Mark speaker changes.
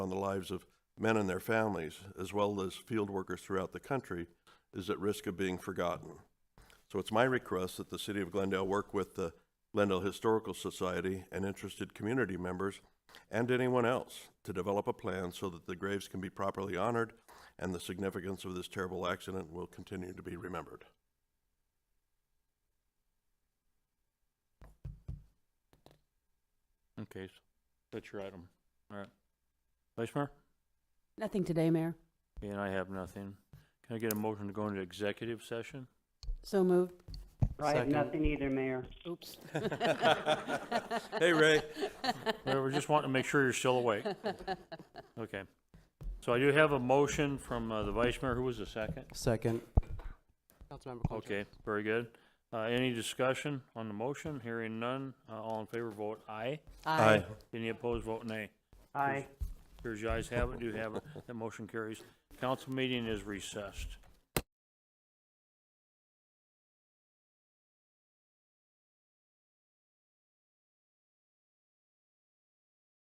Speaker 1: the lives of men and their families, as well as field workers throughout the country, is at risk of being forgotten. So it's my request that the City of Glendale work with the Glendale Historical Society and interested community members and anyone else to develop a plan so that the graves can be properly honored and the significance of this terrible accident will continue to be remembered.
Speaker 2: Okay, so that's your item. All right. Vice Mayor?
Speaker 3: Nothing today, Mayor.
Speaker 2: And I have nothing. Can I get a motion to go into executive session?
Speaker 3: So moved.
Speaker 4: I have
Speaker 2: Second.
Speaker 4: nothing either, Mayor.
Speaker 3: Oops.
Speaker 2: Hey, Ray. Whatever, just wanting to make sure you're still awake. Okay. So I do have a motion from uh, the Vice Mayor. Who was the second?
Speaker 5: Second. Councilmember Cloutier.
Speaker 2: Okay, very good. Uh, Any discussion on the motion? Hearing none. Uh, All in favor, vote aye. Any opposed, vote nay.
Speaker 4: Aye.
Speaker 2: Here's your ayes have it, do have it. That motion carries. Council meeting is recessed.